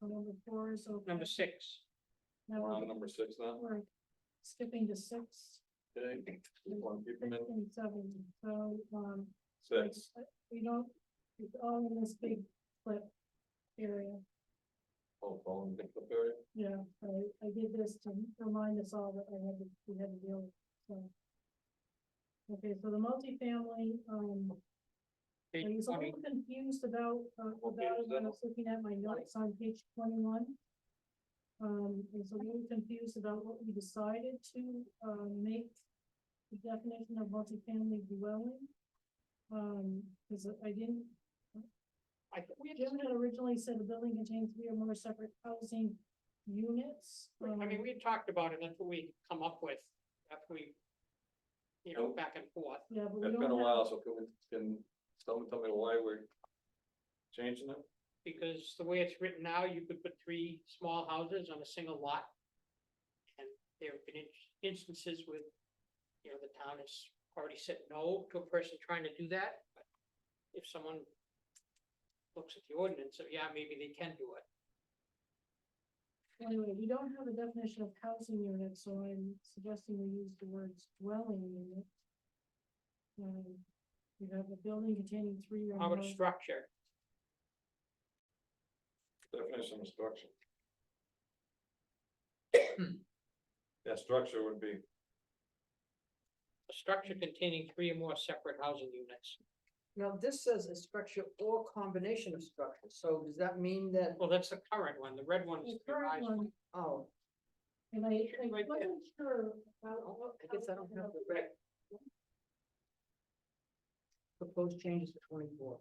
So number four is okay. number six. Now We're on we're- number six now, we're skipping to six okay? We want to keep them in and seven, so, um, Six, we don't, it's all in this big flip area. oh, all in the pickup area, Yeah, I, I did this to remind us all that I had to, we had to deal with, so. Okay, so the multifamily, um, I Page was a twenty, little confused about, uh, What about page it is when I that? was looking at my notes on page twenty-one. Um, I was a little confused about what we decided to, uh, make the definition of multifamily dwelling. Um, cause I didn't, I think we had, Jim had originally said the building contains three or more separate housing units. I mean, um, we had talked about it, that's what we come up with, that's what we. You know, Nope. back and forth, Yeah, but we it's been a don't while, have, so can we, can someone tell me why we're changing it? because the way it's written now, you could put three small houses on a single lot. And there have been in- instances with, you know, the town has already said no to a person trying to do that, but if someone. Looks at the ordinance, so yeah, maybe they can do it, anyway, we don't have a definition of housing unit, so I'm suggesting we use the words dwelling unit. Um, you have a building containing three or how more, about a structure, Definition of structure. Yeah, structure would be, a structure containing three or more separate housing units. Now, this says a structure or combination of structures, so does that mean that, Well, that's the current one, the red one is the the current revised one. one, oh, and I, I Right there. wasn't sure about. oh, I guess I don't have the right. Proposed changes to twenty-four.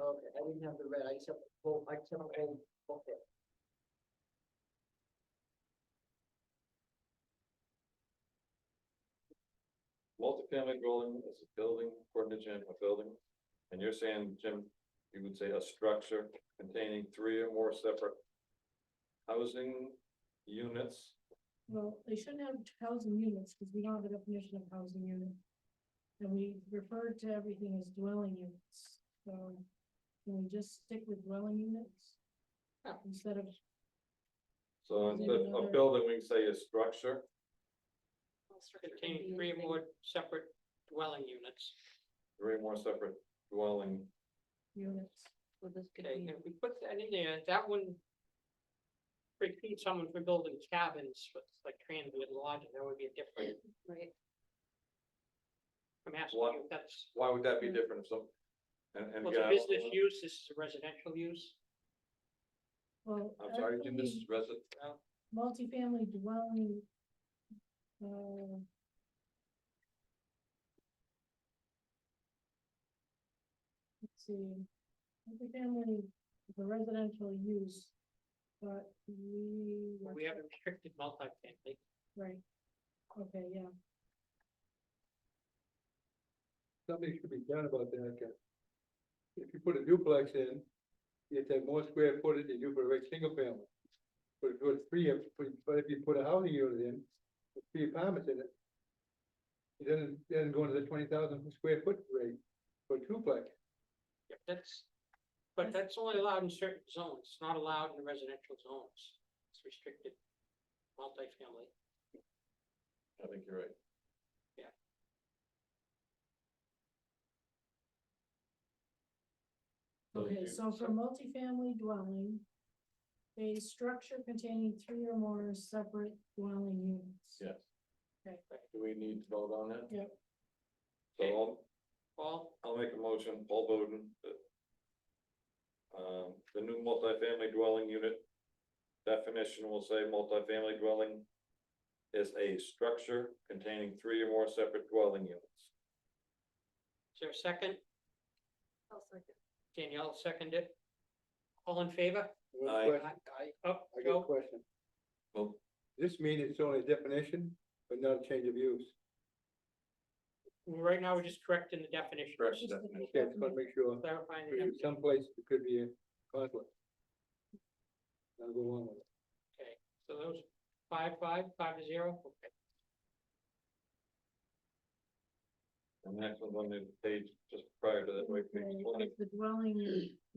Okay, I didn't have the red, I just have, the whole- I just have, the whole booklet. multifamily dwelling is a building, according to Jim, a building. And you're saying, Jim, you would say a structure containing three or more separate housing units. Well, they shouldn't have housing units, because we don't have a definition of housing unit. And we refer to everything as dwelling units, so can we just stick with dwelling units? Yeah. Instead of, So Is it instead of another- building, we can say a structure. containing three or more separate dwelling units. three more separate dwelling. units. Okay, and if we put that in there, that one. Repeat someone for building cabins, with like transient lodging, that would be a different. Right. I'm asking What? you, if that's, Why would that be different if some? And, and Hmm. well, it's again, a I business don't- use, this is a residential use. Well. I'm sorry, Jim, this actually, is resident, Multifamily dwelling. uh, Let's see, multifamily, is a residential use, but we. where We have a restricted multifamily, Right, okay, yeah, something should be done about that, because if you put a duplex in, you have more square footage than you do for a reg- single family. But if you put three, of- but if you put a housing unit in, with three apartments in it, it doesn't, doesn't go into the twenty thousand square foot rate for duplex. Yep, that's. But that's only allowed in certain zones, it's not allowed in residential zones, it's restricted. Multifamily, I think you're right. Thank okay, you. so for multifamily dwelling. A structure containing three or more separate dwelling units. Yes. Okay. Do we need to vote on that? Yep. So I'll, Paul? I'll make a motion, Paul Bowden. that, Um, the new multifamily dwelling unit definition will say multifamily dwelling is a structure containing three or more separate dwelling units. Is there a second? I'll second. Danielle seconded. All in favor? Oh, Aye. Question- Up, I got a go. question. Well- This means it's only a definition, but not a change of use. Right now, we're just correcting the definition. Correct Just the definition. Okay, I just want to make sure, Clarifying the because definition. someplace it could be a conflict. I'll go along with it. Okay, so those five, five, five to zero. Okay. And that's on the page just prior to that, wait, page Okay, twenty. The dwelling unit.